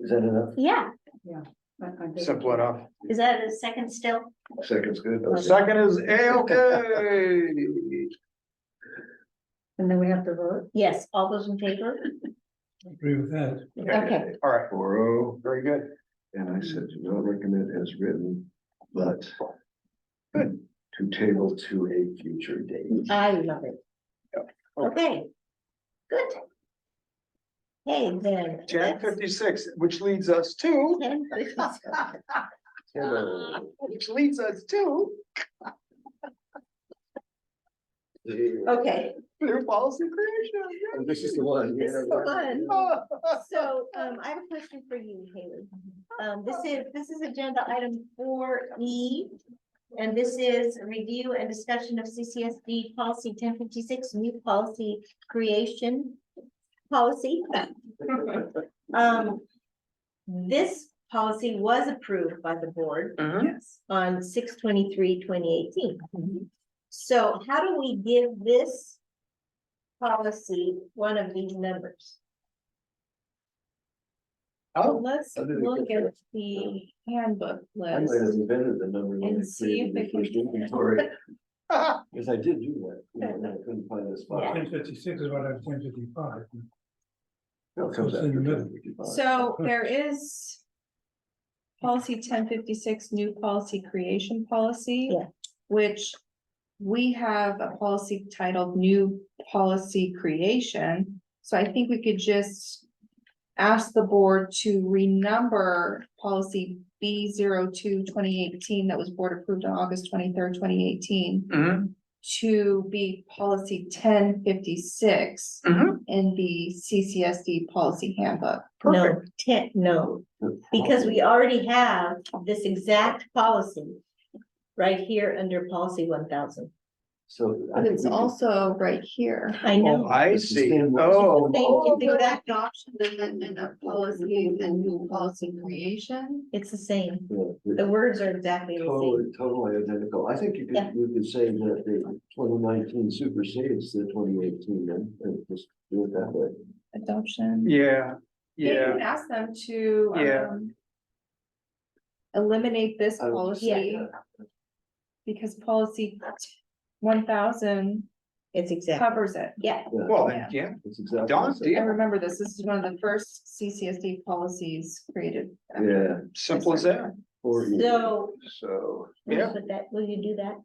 Is that enough? Yeah, Simple enough. is that a second still? Second's good. Second is A okay. And then we have to vote. Yes, all those in favor? agree with that. Okay. All right, Four oh, very good. and I said do not recommend as written, but to table to a future date. I love it. Oh. Okay. Good. Hey, then. Ten fifty-six, which leads us to, that's- 10:56. Uh, Hello. which leads us to Okay, new policy creation. This is the one. This is the one. Ah, so, um, I have a question for you, Haley. Um, this is, this is agenda item four E. And this is a review and discussion of CCSD policy ten fifty-six, new policy creation policy. Oh. Um, this policy was approved by the board Mm-hmm. Yes. on 2018. Mm-hmm. So how do we give this policy one of these numbers? Oh, Let's I didn't look get at the handbook I list. might have invented the number. when I And see if created the we can- first inventory, ah, Because I did do that, you know, and I couldn't find the spot. Ten fifty-six is what I'm ten fifty-five. No, it comes It's in the after middle. 10:55. So there is. Policy ten fifty-six, new policy creation policy. Yeah. Which we have a policy titled new policy creation, so I think we could just. Ask the board to renumber policy B 2 2018 that was board approved on August twenty-third, twenty eighteen. mhm, To be policy ten fifty-six mhm, in the CCSD policy handbook. No, ten, no, because we already have this exact policy right here under policy one thousand. So. I But think it's we could- also right here. I Oh, know. I It's the see. same one. Oh, Thank you. adoption amendment of policy and new policy creation. It's the same. Yeah, The it's words are exactly the same. uh, Totally, totally identical. I think you Yeah. could, you could say that the twenty nineteen supersedes the twenty eighteen then, and just do it that way. Adoption. yeah, You yeah. can ask them to, Yeah. Oh, um. Eliminate this I would say policy because policy one thousand It's exact. covers it. Yeah, that, yeah, Well, then, yeah, It's exactly. Don's the I deal. same. remember this, this is one of the first CCSD policies created. after- Yeah. simple as that. or you- so, So, will you yeah, put that, will you do that?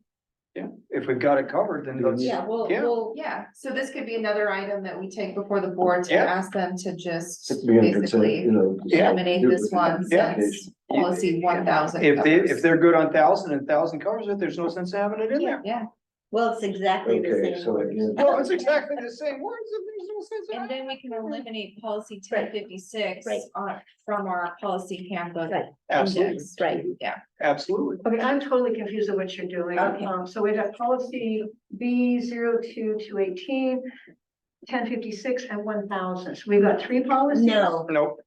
if we've got it covered, then let's, Yeah, we'll, Yeah. we'll, Yeah, so this could be another item that we take before the board to Yeah. ask them to just It could be under consent, basically. you know, just- Yeah. eliminate this one Yeah. since policy one thousand. if they, if they're good on thousand and thousand covers it, there's no sense in having it in there. Yeah, well, it's exactly the Okay, same. so words. again, Well, it's exactly the same words, and there's no sense in and having. then we can eliminate policy ten fifty-six Right. on, from our policy handbook. Right. Absolutely, index. Right, absolutely. Okay, I'm totally confused on what you're doing. Okay. Um, so we have policy B 2 Ten fifty-six and one thousand. So we've got three policies. no, Nope,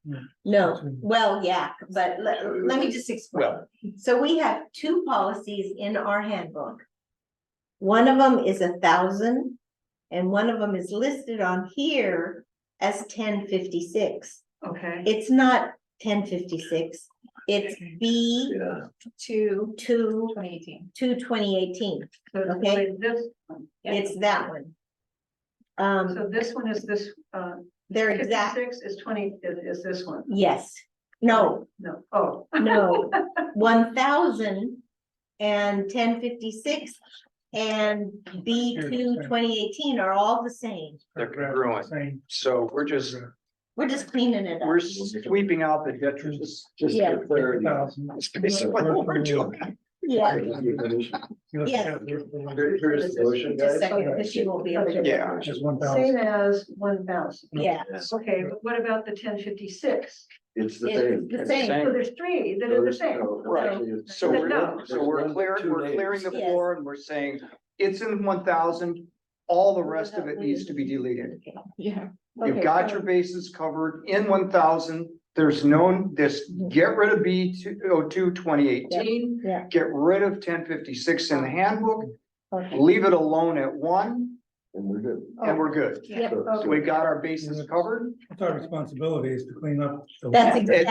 no, well, yeah, but let, let me just explain. well, So we have two policies in our handbook. One of them is a thousand and one of them is listed on here as ten fifty-six. Okay. It's not ten fifty-six, it's B yeah, To two, twenty eighteen. two twenty eighteen. So it's Okay. really This, one. It's that one. Um, so this one is this, uh, they're exact, fifty-six is twenty, is, is this one? yes, no, No, oh, No, one thousand and ten fifty-six and B two 2018 are all the same. They're congruent. Same. so we're just, We're just cleaning it we're up. sweeping out the detritus. just Yeah. for clarity. Thousand. It's basically what we're doing. Yeah. Thank you, Commissioner. You look Yes. at the- the one- Here- Here's the motion, Just a guys. second, because she won't be able to. Yeah. Just one thousand. same as one thousand. Yeah, Okay, but what about the ten fifty-six? It's the same. it's the same. So there's three that are the same. Right. So No. we're, so we're clear, we're clearing the floor and we're saying it's in one thousand, all the rest of it needs to be deleted. Yeah. You've Okay, got so- your bases covered in one thousand, there's no, this, get rid of B two, oh, two, twenty eighteen. Yeah, yeah. Get rid of ten fifty-six in the handbook, okay. Oh. leave it alone at one, And we're good. and we're good. So- So we got our bases covered. It's our responsibility is to clean up. the- That's exactly. It's